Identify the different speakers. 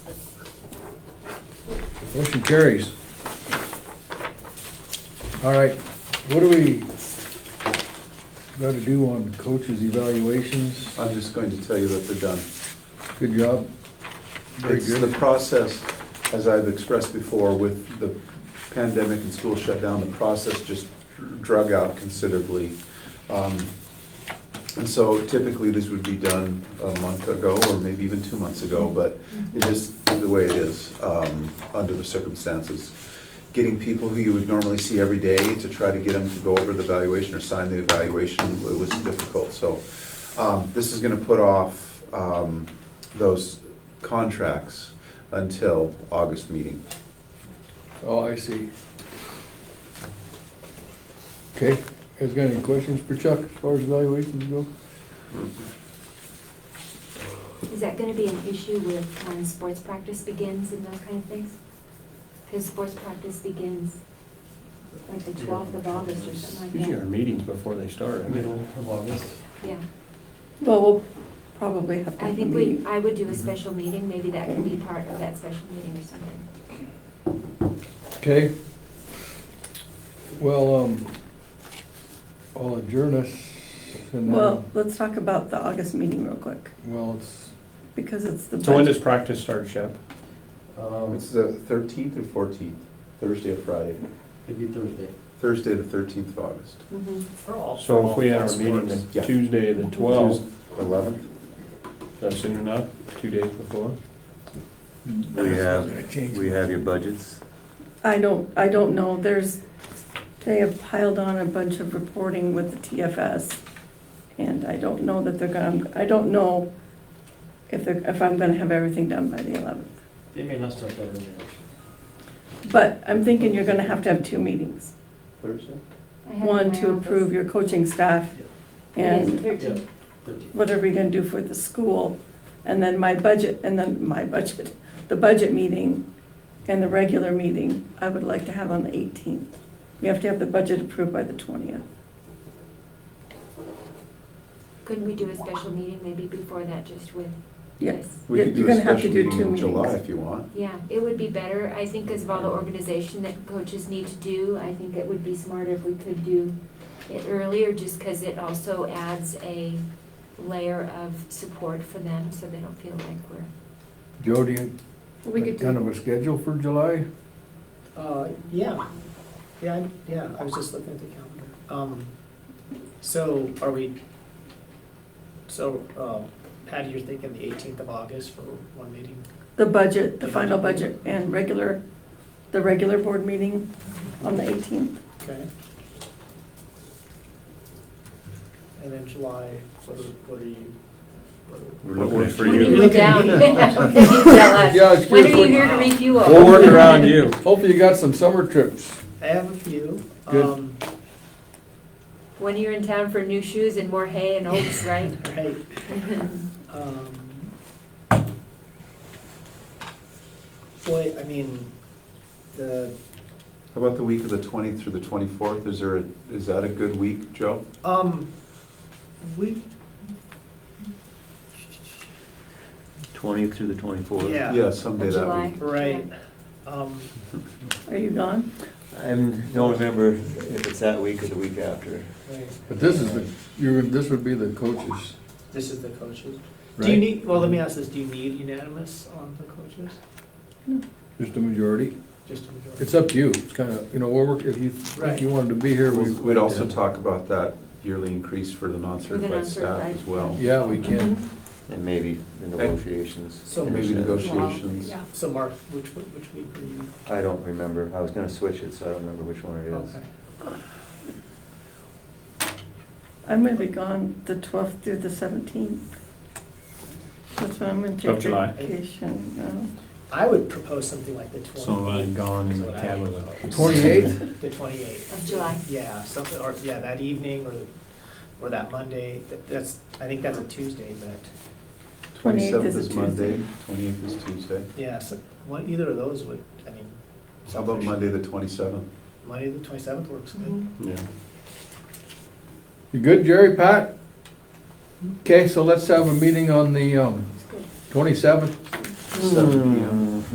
Speaker 1: Motion carries. All right, what do we got to do on coaches' evaluations?
Speaker 2: I'm just going to tell you that they're done.
Speaker 1: Good job. Very
Speaker 2: It's the
Speaker 1: good.
Speaker 2: process, as I've expressed before, with the pandemic and school shutdown, the process just drug out considerably. Um, And so typically, this would be done a month ago, or maybe even two months ago, but it is the way it is, um, under the circumstances. Getting people who you would normally see every day to try to get them to go over the evaluation or sign the evaluation, it was difficult, so. um, This is gonna put off um, those contracts until August meeting.
Speaker 1: Oh, I see. Okay, guys got any questions for Chuck as far as evaluations go?
Speaker 3: Is that gonna be an issue with when sports practice begins and those kind of things? Because sports practice begins like the twelfth of August or something
Speaker 4: Usually our
Speaker 3: like
Speaker 4: meetings before they start, middle of August.
Speaker 3: that. Yeah,
Speaker 5: Well, we'll probably have to.
Speaker 3: I
Speaker 5: have a
Speaker 3: think we,
Speaker 5: meeting.
Speaker 3: I would do a special meeting, maybe that can be part of that special meeting or something.
Speaker 1: Okay. Well, um, I'll adjourn us and then-
Speaker 5: Well, let's talk about the August meeting real quick,
Speaker 1: well, it's,
Speaker 5: because it's the.
Speaker 4: So when does
Speaker 5: budget.
Speaker 4: practice start, Shep?
Speaker 6: Um,
Speaker 2: It's the thirteenth or fourteenth, Thursday or Friday?
Speaker 6: maybe Thursday.
Speaker 2: Thursday, the thirteenth of August.
Speaker 3: Mm-hmm.
Speaker 4: So if we had our meeting
Speaker 2: Yeah.
Speaker 4: the Tuesday, the twelfth,
Speaker 2: Eleventh?
Speaker 4: that's soon enough, two days before?
Speaker 7: We have, we have your budgets.
Speaker 5: I don't, I don't know, there's, they have piled on a bunch of reporting with the TFS, and I don't know that they're gonna, I don't know if they're, if I'm gonna have everything done by the eleventh.
Speaker 6: They may not start that early.
Speaker 5: But I'm thinking you're gonna have to have two meetings,
Speaker 2: Thursday?
Speaker 3: I have it in
Speaker 5: one
Speaker 3: my
Speaker 5: to approve
Speaker 3: office.
Speaker 5: your coaching staff,
Speaker 3: It
Speaker 5: and
Speaker 3: is 13th.
Speaker 6: Yeah, thirteen.
Speaker 5: what are we gonna do for the school? And then my budget, and then my budget, the budget meeting and the regular meeting, I would like to have on the eighteenth. We have to have the budget approved by the twentieth.
Speaker 3: Couldn't we do a special meeting maybe before that, just with?
Speaker 5: Yes.
Speaker 3: this?
Speaker 2: We
Speaker 5: You're-
Speaker 2: could
Speaker 5: you're
Speaker 2: do a
Speaker 5: gonna have to
Speaker 2: special
Speaker 5: do
Speaker 2: meeting
Speaker 5: two
Speaker 2: in July
Speaker 5: meetings.
Speaker 2: if you want.
Speaker 3: Yeah, it would be better, I think, as of all the organization that coaches need to do, I think it would be smarter if we could do it earlier, just because it also adds a layer of support for them, so they don't feel like we're.
Speaker 1: Joe, do you,
Speaker 5: We could
Speaker 1: kind of
Speaker 5: do,
Speaker 1: a schedule for July?
Speaker 8: Uh, yeah, yeah, I- yeah, I was just looking at the calendar. Um, so are we, so, um, Patty, you're thinking the eighteenth of August for one meeting?
Speaker 5: the budget, the final budget and regular, the regular board meeting on the eighteenth.
Speaker 8: Okay. And then July, what are, what are you? what are-
Speaker 7: We're looking for
Speaker 3: When are
Speaker 7: you.
Speaker 3: you down? Then you tell us.
Speaker 1: Yeah, it's
Speaker 3: When
Speaker 1: good
Speaker 3: are you
Speaker 1: for-
Speaker 3: here to review all?
Speaker 4: We'll work around you.
Speaker 1: Hopefully you got some summer trips.
Speaker 8: I have a few.
Speaker 1: Good.
Speaker 8: Um,
Speaker 3: When you're in town for new shoes and more hay and oats, right?
Speaker 8: right. Um, Boy, I mean, the,
Speaker 2: How about the week of the twentieth through the twenty-fourth? Is there, a- is that a good week, Joe?
Speaker 8: um, we,
Speaker 7: Twentieth through the twenty-fourth.
Speaker 5: Uh,
Speaker 8: yeah.
Speaker 2: Yeah, someday
Speaker 3: Of
Speaker 2: that
Speaker 3: July.
Speaker 2: week.
Speaker 8: Right. Um,
Speaker 5: Are you gone?
Speaker 7: I don't remember if it's that week or the week after.
Speaker 8: right.
Speaker 1: But this is the, you, this would be the coaches,
Speaker 8: This is the coaches. Do you
Speaker 1: right?
Speaker 8: need, well, let me ask this, do you need unanimous on the coaches?
Speaker 1: Just a majority.
Speaker 8: Just a majority?
Speaker 1: It's up to you. It's kind of, you know, we're, work- if you think you wanted to be here, we.
Speaker 2: We'd also talk about that yearly increase for the non-certified staff
Speaker 3: non-certified.
Speaker 2: as well.
Speaker 1: Yeah, we can.
Speaker 8: Mm-hmm.
Speaker 7: And maybe the negotiations.
Speaker 8: So-
Speaker 2: And Maybe negotiations.
Speaker 8: So Mark, which, which week are you?
Speaker 7: I don't remember. I was gonna switch it, so I don't remember which one it is.
Speaker 8: Okay.
Speaker 5: I'm gonna be gone the twelfth through the seventeenth. That's when I'm gonna
Speaker 4: Of
Speaker 5: take
Speaker 4: July.
Speaker 5: vacation, no.
Speaker 8: I would propose something like the
Speaker 4: So
Speaker 8: twenty.
Speaker 1: um,
Speaker 4: I'm gone in the Cadillac.
Speaker 1: Twenty-eighth?
Speaker 8: The twenty-eighth.
Speaker 3: Of July.
Speaker 8: Yeah, something, or, yeah, that evening or, or that Monday, That- that's, I think that's a Tuesday, but,
Speaker 5: Twenty-eighth
Speaker 2: Twenty-seventh
Speaker 5: is a
Speaker 2: is Monday,
Speaker 5: Tuesday.
Speaker 2: twenty-eighth is Tuesday.
Speaker 8: yeah, so, one, either of those would, I mean.
Speaker 2: How about
Speaker 8: selfish.
Speaker 2: Monday, the twenty-seventh?
Speaker 8: Monday, the twenty-seventh works good.
Speaker 3: Mhm.
Speaker 4: Yeah.
Speaker 1: You good, Jerry, Pat? Okay, so let's have a meeting on the, um, twenty-seventh.
Speaker 7: Hmm.
Speaker 2: Seven P M.